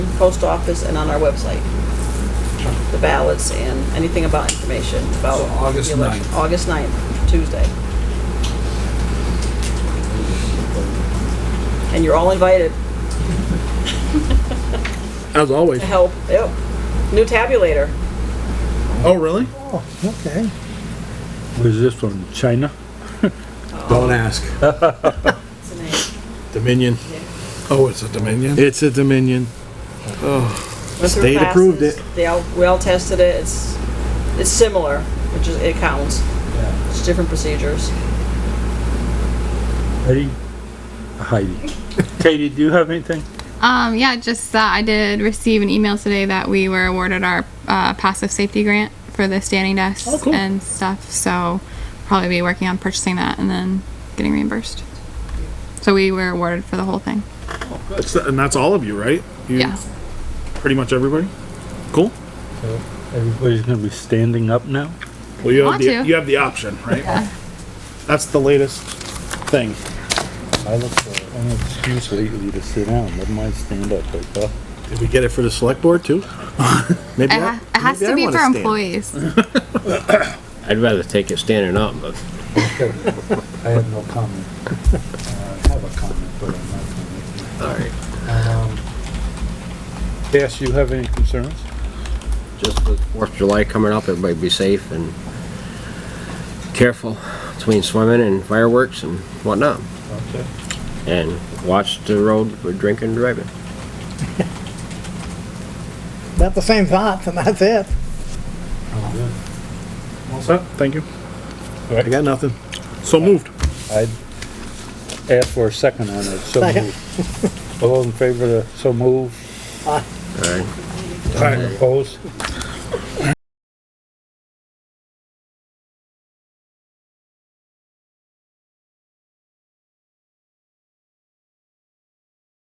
post office and on our website. The ballots and anything about information about So August the election. August 9th, Tuesday. And you're all invited As always. to help. Yep. New tabulator. Oh, really? Oh, okay. Where's this from? China? Don't ask. Dominion. Oh, it's a Dominion? It's a Dominion. State approved it. They all, we all tested it. It's, it's similar, which is, it counts. It's different procedures. Heidi? Heidi. Katie, do you have anything? Um, yeah, just that I did receive an email today that we were awarded our uh, passive safety grant for the standing desks Oh, cool. and stuff. So probably be working on purchasing that and then getting reimbursed. So we were awarded for the whole thing. That's- And that's all of you, right? You- Yeah. Pretty much everybody? Cool. Everybody's gonna be standing up now? Well, you have Want the, to. you have the option, right? That's the latest thing. I look for an excuse lately to sit down, let mine stand up, like, uh, Did we get it for the select board too? Maybe It, I- ha- it has maybe to I be wanna for stand. employees. I'd rather take it standing up, but I have no comment. Uh, I have a comment, but I'm not gonna make it. Alright. Yes, you have any concerns? just with Fourth of July coming up, everybody be safe and careful between swimming and fireworks and whatnot. Okay. And watch the road for drinking and driving. About the same thoughts, and that's it. I'm good. All set? Thank you. I got nothing. So moved. I'd ask for a second on it, so Second. move. All those in favor of the so move, Alright. opposed?